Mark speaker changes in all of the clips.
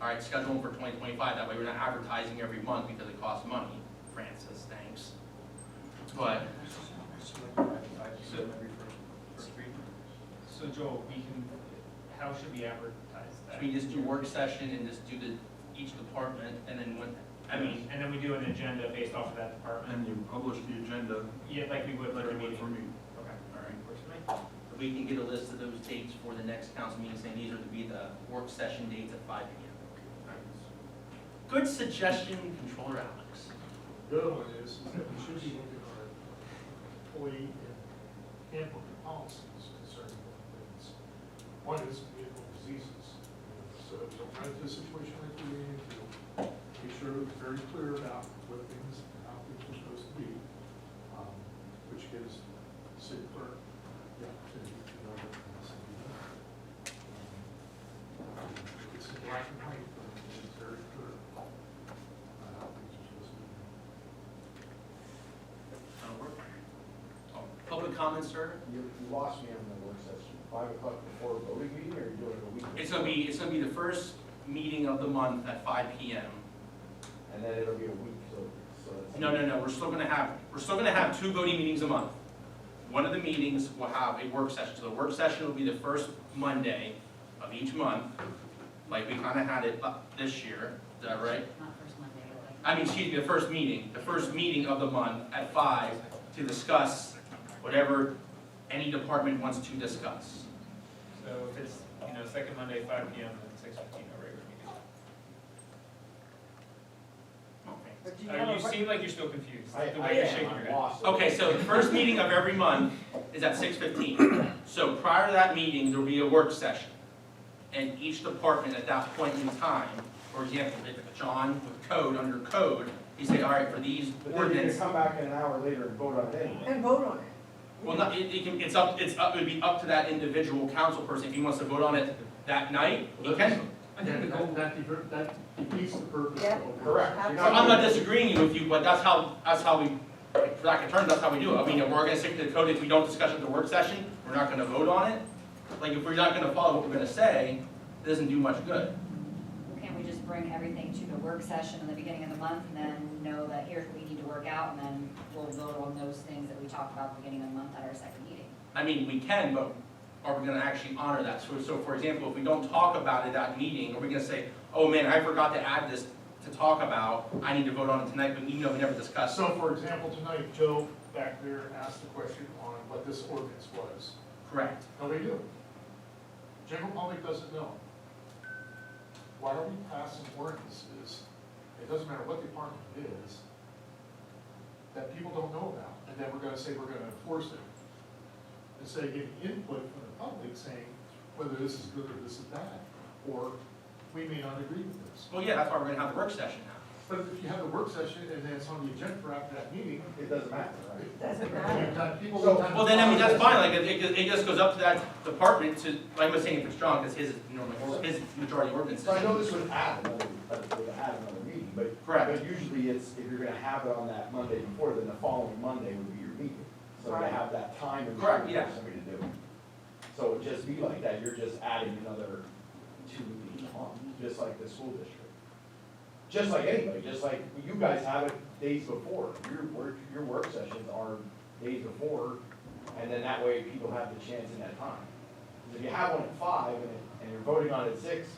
Speaker 1: All right, schedule them for twenty twenty-five, that way we're not advertising every month because it costs money, Francis, thanks. But,
Speaker 2: So Joel, we can, how should we advertise that?
Speaker 1: should we just do work session and just do the, each department, and then when,
Speaker 2: I mean, and then we do an agenda based off of that department,
Speaker 3: And you publish the agenda
Speaker 2: yeah, like we would
Speaker 3: like
Speaker 2: like a
Speaker 3: it would
Speaker 2: meeting.
Speaker 3: for me.
Speaker 2: Okay, all right, works for me.
Speaker 1: if we can get a list of those dates for the next council meeting, saying these are to be the work session dates at five P M. Good suggestion, Controller Alex.
Speaker 4: The other one is, is that we should be looking at our employee and handbook policies concerning things. One is vehicle diseases, so don't run into a situation like we ran into. Make sure we're very clear about what things, and how things are supposed to be, um, which gives the city clerk the opportunity to know what things to be done. Um, It's in black and white, but it's very clear on how things are supposed to be done.
Speaker 1: That'll work. Oh, Public comment, sir?
Speaker 5: You, you lost me on the work session, five o'clock before voting meeting, or you're doing it a week?
Speaker 1: It's gonna be, it's gonna be the first meeting of the month at five P M.
Speaker 5: And then it'll be a week, so, so that's.
Speaker 1: No, no, no, we're still gonna have, we're still gonna have two voting meetings a month. One of the meetings will have a work session, so the work session will be the first Monday of each month, like we kinda had it up this year, is that right?
Speaker 6: Not first Monday, but
Speaker 1: I mean, excuse me, the first meeting, the first meeting of the month at five to discuss whatever any department wants to discuss.
Speaker 2: So if it's, you know, second Monday, five P M, and six fifteen, our regular meeting.
Speaker 1: Okay.
Speaker 6: Or do you
Speaker 2: Uh,
Speaker 6: have a
Speaker 2: You
Speaker 6: re-
Speaker 2: seem like you're still confused,
Speaker 5: I,
Speaker 2: the
Speaker 5: I
Speaker 2: way you're shaking
Speaker 5: am,
Speaker 2: your
Speaker 5: I'm
Speaker 2: head.
Speaker 5: lost.
Speaker 1: Okay, so the first meeting of every month is at six fifteen. So prior to that meeting, there'll be a work session. And each department at that point in time, for example, if John with code, under code, he say, all right, for these
Speaker 5: But then you can
Speaker 1: ordinance,
Speaker 5: come back in an hour later and vote on it anyway.
Speaker 7: And vote on it.
Speaker 1: well, not, it, it can, it's up, it's up, it'd be up to that individual council person, if he wants to vote on it that night, he can.
Speaker 4: That, that defeat- that defeats the purpose
Speaker 7: Yeah.
Speaker 4: of. a work
Speaker 5: Correct.
Speaker 4: session.
Speaker 5: You're
Speaker 1: So I'm not disagreeing with you, but that's how, that's how we, for lack of terms, that's how we do it. I mean, if we're gonna stick to the code, if we don't discuss it at the work session, we're not gonna vote on it. Like, if we're not gonna follow what we're gonna say, it doesn't do much good.
Speaker 6: Can't we just bring everything to the work session in the beginning of the month and then know that here's what we need to work out and then we'll vote on those things that we talked about at the beginning of the month at our second meeting?
Speaker 1: I mean, we can, but are we gonna actually honor that? So, so for example, if we don't talk about it at meeting, are we gonna say, oh man, I forgot to add this to talk about, I need to vote on it tonight, but you know, we never discussed. it.
Speaker 4: So for example, tonight, Joe back there asked the question on what this ordinance was.
Speaker 1: Correct.
Speaker 4: Nobody knew. General public doesn't know. Why are we passing ordinances, it doesn't matter what department it is, that people don't know about, and then we're gonna say we're gonna enforce it? Instead of getting input from the public saying whether this is good or this is bad, or we may not agree with this.
Speaker 1: Well, yeah, that's why we're gonna have the work session now.
Speaker 4: But if you have a work session and then it's on the agenda for after that meeting,
Speaker 5: It doesn't matter, right?
Speaker 7: Doesn't
Speaker 4: you've
Speaker 7: matter.
Speaker 4: got people.
Speaker 5: So-
Speaker 1: Well, then, I mean, that's fine, like, it, it- it just goes up to that department to, like I was saying, if it's John, because his, normally his majority ordinance
Speaker 5: So I know
Speaker 1: is.
Speaker 5: this would add another, that would add another meeting, but.
Speaker 1: Correct.
Speaker 5: But usually it's, if you're gonna have it on that Monday before, then the following Monday would be your meeting. So to
Speaker 7: Right.
Speaker 5: have that time and
Speaker 1: Correct,
Speaker 5: for
Speaker 1: yeah.
Speaker 5: somebody to do it. So it would just be like that, you're just adding another two meetings on, just like the school district. Just like anybody, just like you guys have it days before, your work, your work sessions are days before, and then that way people have the chance in that time. 'Cause If you have one at five and, it- and you're voting on it at six,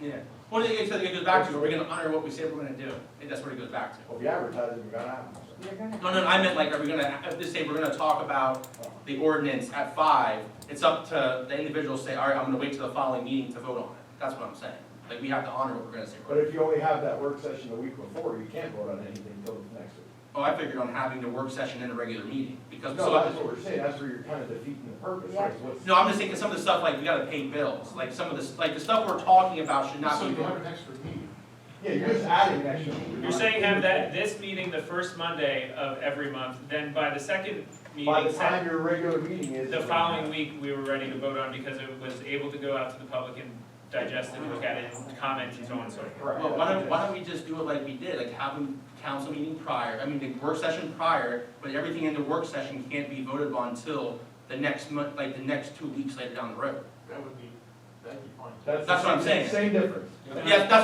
Speaker 1: Yeah, well, it, it it goes back to, are we gonna honor what we say we're gonna do? And that's what it goes back to.
Speaker 5: well, if you advertise it, you're gonna have them.
Speaker 7: You're gonna.
Speaker 1: No, no, I meant like, are we gonna, if they say we're gonna talk about the ordinance at five, it's up to the individual to say, all right, I'm gonna wait till the following meeting to vote on it. That's what I'm saying. Like, we have to honor what we're gonna say.
Speaker 5: But if you only have that work session the week before, you can't vote on anything until the next week.
Speaker 1: Oh, I figured on having the work session in a regular meeting, because,
Speaker 5: No, that's what
Speaker 1: so,
Speaker 5: we're saying, that's where you're kind of defeating the purpose,
Speaker 7: Yeah.
Speaker 5: right? What's-
Speaker 1: no, I'm just thinking some of the stuff, like, we gotta pay bills, like, some of this, like, the stuff we're talking about should not
Speaker 4: So
Speaker 1: be.
Speaker 4: you have an extra meeting.
Speaker 5: Yeah, you're just adding an extra. meeting.
Speaker 2: You're saying have that, this meeting the first Monday of every month, then by the second
Speaker 5: By
Speaker 2: meeting,
Speaker 5: the time your regular meeting is.
Speaker 2: the following week, we were ready to vote on because it was able to go out to the public and digest and look at it, and comment and so on and so forth.
Speaker 5: Correct.
Speaker 1: Well, why don't, why don't we just do it like we did, like have a council meeting prior, I mean, the work session prior, but everything in the work session can't be voted upon until the next month, like the next two weeks later down the road.
Speaker 4: That would be, that'd be fine.
Speaker 1: That's what I'm
Speaker 5: the
Speaker 1: saying.
Speaker 5: Same difference.
Speaker 1: Yes, that's